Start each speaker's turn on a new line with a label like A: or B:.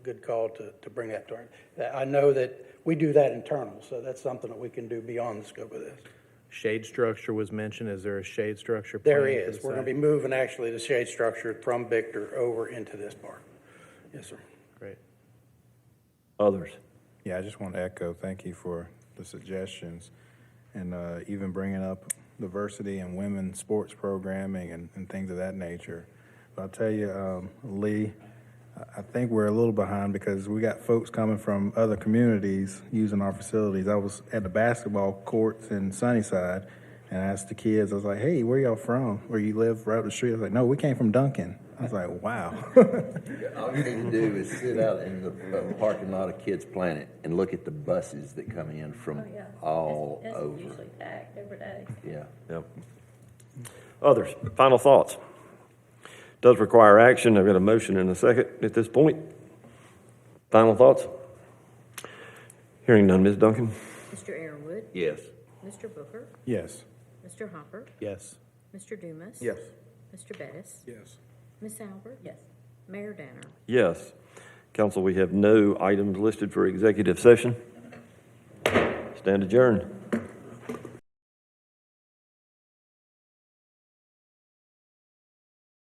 A: good call to, to bring that to our, that- I know that we do that internal, so that's something that we can do beyond the scope of this.
B: Shade structure was mentioned. Is there a shade structure?
A: There
B: planned for
A: is,
B: the
A: we're gonna be
B: site?
A: moving actually the shade structure from Victor over into this park. Yes, sir.
B: Great.
C: Others?
D: Yeah, I just want to echo, thank you for the suggestions and uh, even bringing up diversity and women's sports programming and, and things of that nature. But I'll tell you, um, Lee, I- I think we're a little behind because we got folks coming from other communities using our facilities. I was at the basketball courts in Sunnyside and I asked the kids, I was like, hey, where y'all from? Where you live right up the street? I was like, no, we came from Duncan. I was like, wow.
C: All you need to do is sit out in the uh, parking lot of Kids Planet and look at the buses that come in
E: Oh,
C: from
E: yeah.
C: all
E: It's- It's
C: over.
E: usually packed every day.
C: Yeah.
F: Yep. Others, final thoughts? Does require action. I've got a motion and a second at this point. Final thoughts? Hearing none, Ms. Duncan?
G: Mr. Aaronwood,
C: Yes.
G: Mr. Booker,
D: yes.
G: Mr. Hopper,
B: Yes.
G: Mr. Dumas. Mr. Bettis,
D: Yes.
G: Miss Albert.
E: Yes.
G: Mayor Danner.
F: Yes. Council, we have no items listed for executive session. Stand adjourned.